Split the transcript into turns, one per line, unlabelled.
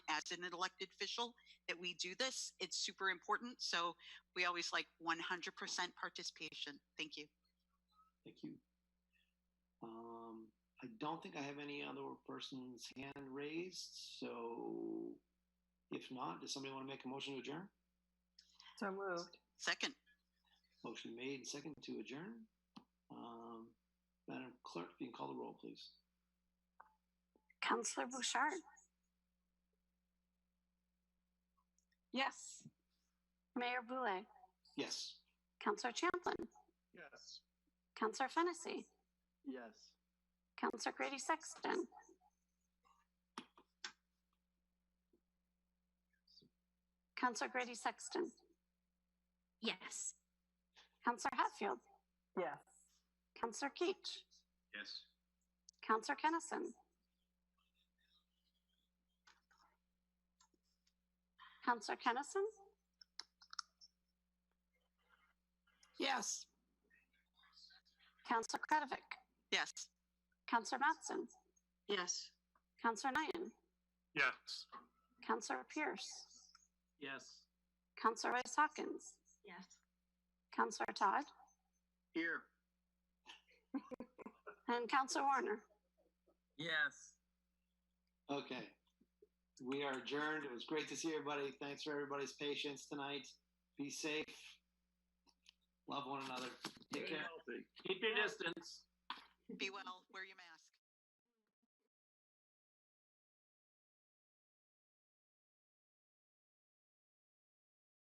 as an elected official that we do this. It's super important. So we always like 100% participation. Thank you.
Thank you. Um, I don't think I have any other person's hand raised, so if not, does somebody want to make a motion to adjourn?
So moved.
Second,
Motion made and second to adjourn. Um, Madam Clerk, if you can call the roll, please.
Counselor Bouchard,
Yes.
Mayor Boulay,
Yes.
Counselor Champlin,
Yes.
Counselor Fennessy,
Yes.
Counselor Grady Sexton, Counselor Grady Sexton. Yes. Counselor Hatfield,
Yes.
Counselor Keach,
Yes.
Counselor Kennison. Counselor Kennison,
Yes.
Counselor Kretovic,
yes.
Counselor Matson,
Yes.
Counselor Knighton,
Yes.
Counselor Pierce,
Yes.
Counselor Rice Hawkins,
Yes.
Counselor Todd,
Here.
and Counselor Warner.
Yes.
Okay. We are adjourned. It was great to see everybody. Thanks for everybody's patience tonight. Be safe. Love one another. Take care.
Keep your distance.
Be well, wear your mask.